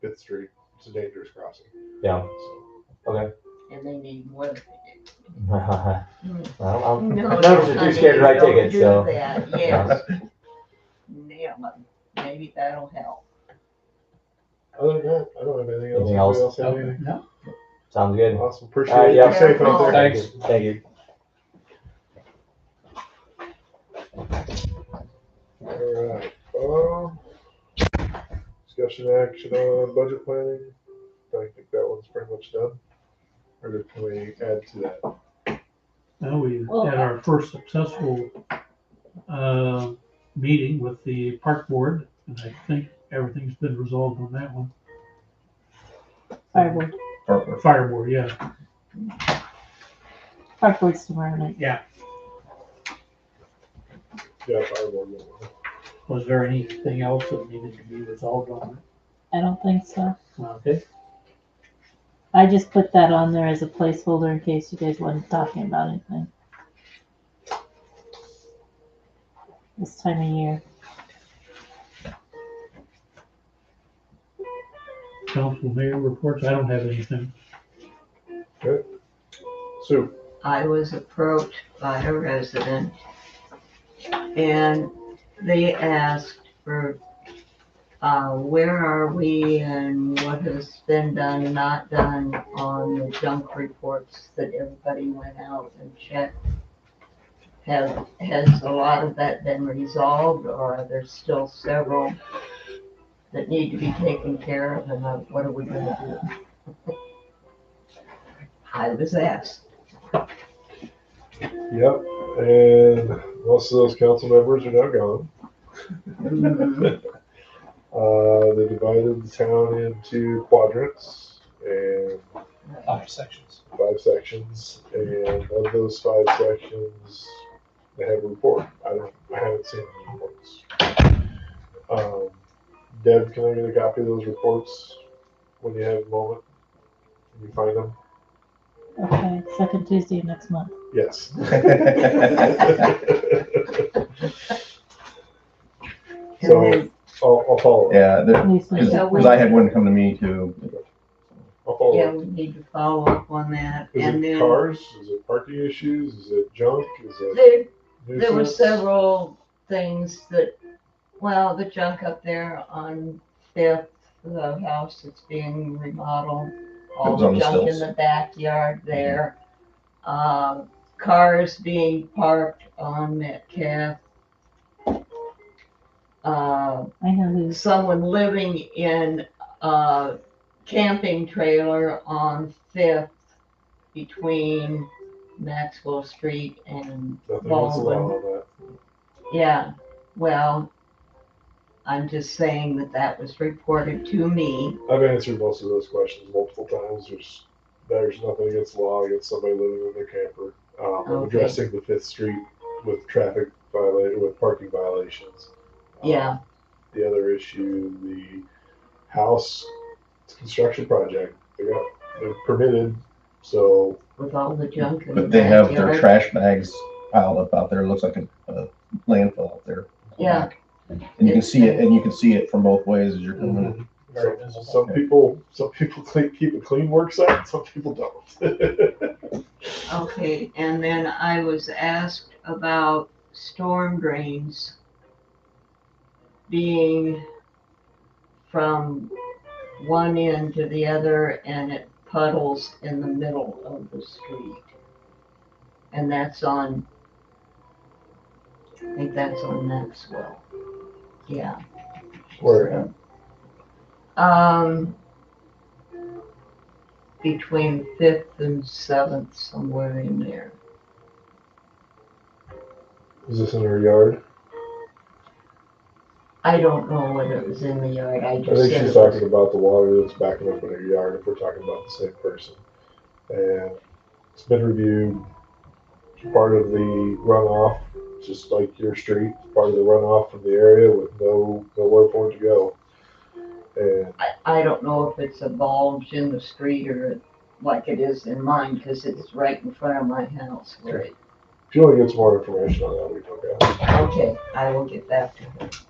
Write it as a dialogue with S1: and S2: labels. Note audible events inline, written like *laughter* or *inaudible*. S1: Fifth Street. It's a dangerous crossing.
S2: Yeah.
S1: So,
S3: and they need women.
S2: *laughs* I don't, I'm,
S3: No,
S2: I'm never too scared to write
S3: don't
S2: tickets,
S3: do
S2: so.
S3: that, Yes. Yeah, maybe that'll help.
S1: other than that, I don't have anything else. Anybody
S2: Anything else?
S1: else have anything?
S4: No.
S2: Sounds good.
S1: Awesome.
S2: All right,
S1: Appreciate it.
S2: yeah.
S1: Be safe out there.
S4: Thanks.
S2: Thank you.
S1: All right. Um, discussion action on budget planning. I think that one's pretty much done. Or did- can we add to that?
S5: Now we had our first successful uh, meeting with the park board, and I think everything's been resolved on that one.
S6: Firewood,
S5: Or Fire board, yeah.
S6: Park Board's tomorrow night.
S5: Yeah.
S1: Yeah, fireborn. that one.
S5: Was there anything else that needed to be resolved on
S6: I don't think so.
S5: it? Okay,
S6: I just put that on there as a placeholder in case you guys wasn't talking about anything. This time of year.
S5: council mayor reports, I don't have anything.
S1: Sue,
S3: I was approached by a resident and they asked for, uh, where are we and what has been done, not done on the junk reports that everybody went out and checked? Have, has a lot of that been resolved or are there still several that need to be taken care of and uh, what are we gonna do? I was asked.
S1: yep, and most of those council members are now gone.
S3: Mhm.
S1: Uh, they divided the town into quadrants and
S4: Five sections.
S1: five sections, and of those five sections, they have a report. I don't, I haven't seen the reports. Um, Deb, can I get a copy of those reports when you have a moment? Can you find them?
S6: Okay, second Tuesday of next month.
S1: Yes. *laughs*
S7: *laughs*
S3: And then,
S1: I'll, I'll follow. up.
S7: Yeah,
S6: Loosely.
S7: because I had one come to me too.
S1: I'll follow.
S3: yeah,
S1: up.
S3: we need to follow up on that,
S1: Is
S3: and
S1: it
S3: then
S1: cars? Is it parking issues? Is it junk? Is it
S3: there, there were
S1: nuisance?
S3: several things that, well, the junk up there on Fifth, the house that's being remodeled, all
S7: was
S3: the
S7: on the
S3: junk in
S7: stilts.
S3: the backyard there. Um, cars being parked on Metcalf. Uh,
S6: I know who's,
S3: someone living in a camping trailer on Fifth between Maxwell Street and,
S1: Nothing was allowed on that.
S3: yeah, well, I'm just saying that that was reported to me.
S1: I've answered most of those questions multiple times. There's there's nothing against the law against somebody living with their camper. Um, I'm
S3: Okay.
S1: addressing the Fifth Street with traffic violation with parking violations. Um,
S3: Yeah,
S1: The other issue, the house construction project, they got they're permitted, so
S3: with all the junk in the
S7: But they have their
S3: backyard.
S7: trash bags piled up out there. It looks like a, a landfill out there.
S3: Yeah.
S7: And you can see it, and you can see it from both ways as you're coming
S5: Mm-hmm.
S7: in.
S1: some,
S4: Very visible.
S1: some people some people *laughs* clean, keep a clean work site, some people don't.
S3: Okay, and then I was asked about storm drains being from one end to the other and it puddles in the middle of the street. And that's on, I think that's on Maxwell. Yeah.
S1: Where?
S3: Um, between fifth and seventh, somewhere in there.
S1: Is this in her yard?
S3: I don't know whether it was in the yard, I
S1: I
S3: just
S1: think
S3: said
S1: she's
S3: it was.
S1: talking about the water that's backing up in her yard, if we're talking about the same person. And it's been reviewed, part of the runoff, just like your street, part of the runoff from the area with no, nowhere for it to go. And
S3: I, I don't know if it's a bulge in the street or like it is in mine, because it's right in front of my house. where it-
S1: if you want to get some more information on that, we can go.
S3: Okay, I will get back to her.